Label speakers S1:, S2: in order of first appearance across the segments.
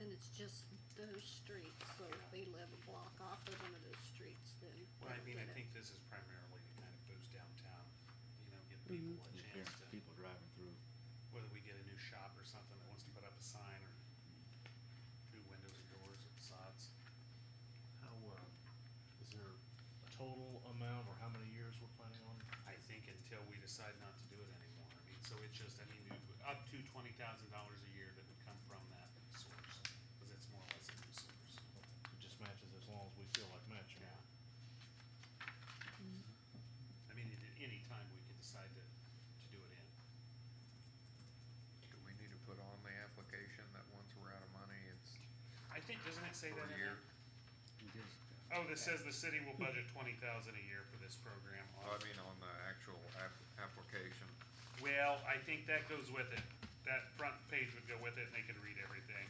S1: it's just those streets, so if they live a block off of one of those streets, then.
S2: Well, I
S1: they'll
S2: mean,
S1: get
S2: I
S1: it.
S2: think this is primarily to kind of boost downtown, you know, give
S1: Mhm.
S2: people a
S3: Just
S2: chance
S3: parents,
S2: to,
S3: people driving through.
S2: whether we get a new shop or something that wants to put up a sign or new windows or doors or facades.
S4: How, uh, is there a total amount or how many years we're planning on?
S2: I think until we decide not to do it anymore. I mean, so it's just, I mean, you- up to twenty thousand dollars a year that would come from that source, because it's more or less a new source.
S4: It just matches as long as we feel like matching.
S2: Yeah. I mean, at any time, we could decide to, to do it in.
S5: Do we need to put on the application that once we're out of money, it's
S2: I think, doesn't it say
S5: per
S2: that in
S5: year?
S2: there? Oh, this says the city will budget twenty thousand a year for this program.
S5: Oh, I mean, on the actual app, application.
S2: Well, I think that goes with it. That front page would go with it and they could read everything.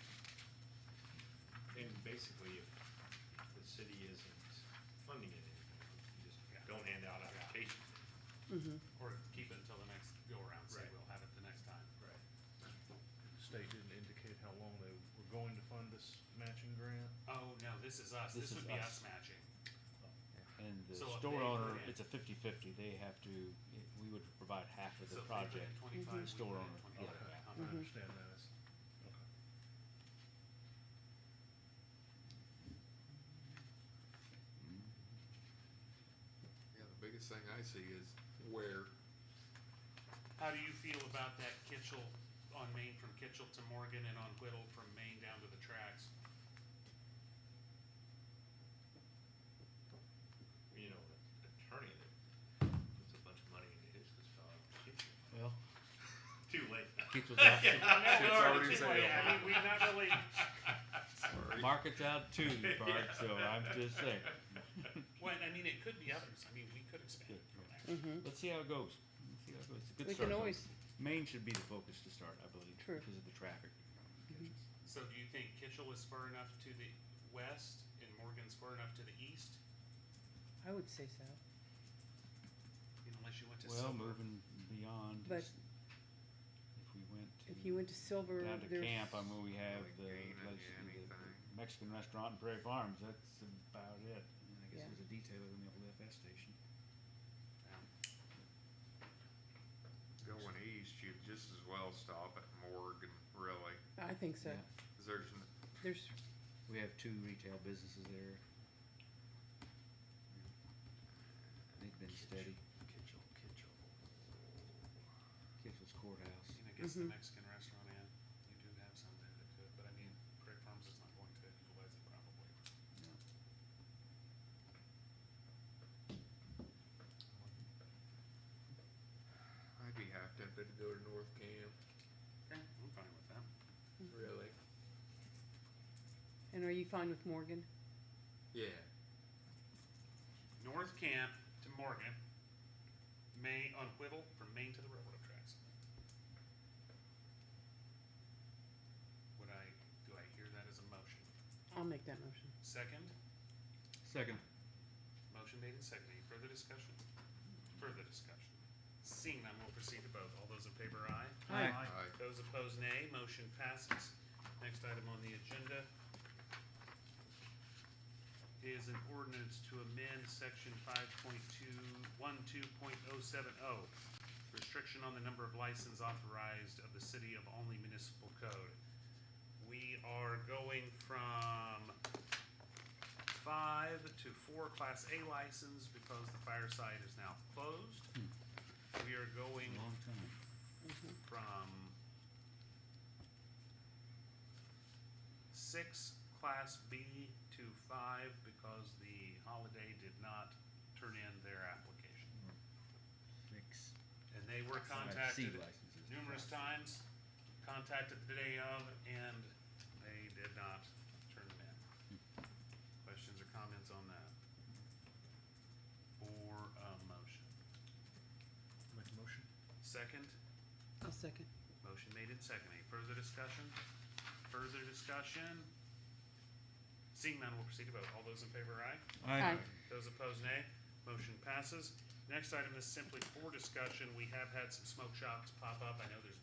S6: And basically, if if the city isn't funding it anymore, you just
S2: Yeah.
S6: don't hand out applications.
S2: Or keep it until the next go-around, say
S6: Right.
S2: we'll have it the next time.
S6: Right.
S4: The State didn't indicate how long they were going to fund this matching grant.
S2: Oh, no, this is us.
S3: This
S2: This
S3: is
S2: would be
S3: us.
S2: us matching.
S3: And the
S2: So if
S3: store
S2: they put
S3: owner,
S2: in-
S3: it's a fifty-fifty, they have to, it- we would provide half of the
S2: So if they put in
S3: project.
S2: Twenty-five, we
S3: Store
S2: put in
S3: owner,
S2: twenty-five. uh-huh.
S3: yeah.
S4: I
S6: Mm-hmm.
S2: Okay.
S4: understand that, it's, okay.
S5: Yeah, the biggest thing I see is where,
S2: How do you feel about that Kitchell, on Main from Kitchell to Morgan and on Whittle from Main down to the tracks?
S6: You know, an attorney that puts a bunch of money into his, this fellow,
S3: Well,
S6: too late.
S3: Keith was out,
S2: No,
S5: It's
S2: no,
S5: already
S2: it's like, I
S5: sailed.
S2: mean, we've not really,
S5: sorry,
S3: market's out too, Bart, so I'm just saying.
S2: well, I mean, it could be others. I mean, we could expand it from there.
S3: Let's see how it goes. Let's see how it goes. It's a good
S7: We
S3: start.
S7: can
S3: though.
S7: always,
S3: Main should be the focus to start, I believe,
S7: True.
S3: because of the traffic.
S2: So do you think Kitchell is far enough to the west and Morgan's far enough to the east?
S7: I would say so,
S2: You know, Unless you went to
S3: Well,
S2: Silver.
S3: moving beyond,
S7: but
S3: is if we went to.
S7: if you went to Silver,
S3: down to
S7: there's.
S3: camp, I mean, we have
S5: really
S3: the,
S5: gain any-
S3: let's- the- the
S5: anything.
S3: Mexican restaurant in Prairie Farms, that's about it. And I guess
S7: Yeah.
S3: there's a detailer in the old FS station.
S5: going east, you'd just as well stop at Morgan, really,
S7: I think so,
S3: Yeah.
S5: 'cause there's, n-
S7: there's,
S3: We have two retail businesses there. They've been steady.
S2: Kitchell, Kitchell.
S3: Kitchell's Courthouse.
S2: I mean, I guess the
S7: Mhm.
S2: Mexican restaurant in, you do have some there that could, but I mean, Prairie Farms is not going to utilize it probably.
S5: I'd be half tempted to go to North Camp,
S2: Okay. I'm fine with that.
S5: really.
S7: and are you fine with Morgan?
S5: Yeah.
S2: North Camp to Morgan, May, on Whittle, from Maine to the railroad tracks. Would I, do I hear that as a motion?
S7: I'll make that motion.
S2: Second?
S3: Second.
S2: Motion made and seconded. Any further discussion? Further discussion. Seeing none, we'll proceed to vote. All those in favor, aye.
S3: Aye.
S5: I,
S2: Those opposed, nay. Motion passes. Next item on the agenda is an ordinance to amend section five point two, one two point oh seven oh, restriction on the number of license authorized of the city of only municipal code. We are going from five to four class A license because the fireside is now closed. We are going
S3: Hmm. Long time.
S2: from six class B to five because the holiday did not turn in their application.
S3: Six.
S2: And they were
S3: Class C
S2: contacted
S3: licenses.
S2: numerous times, contacted the day of, and they did not turn them in. Questions or comments on that? Or a motion?
S4: Make a motion?
S2: Second?
S7: I'll second.
S2: Motion made and seconded. Any further discussion? Further discussion? Seeing none, we'll proceed to vote. All those in favor, aye.
S7: Aye.
S2: Those opposed, nay. Motion passes. Next item is simply for discussion. We have had some smoke shops pop up. I know there's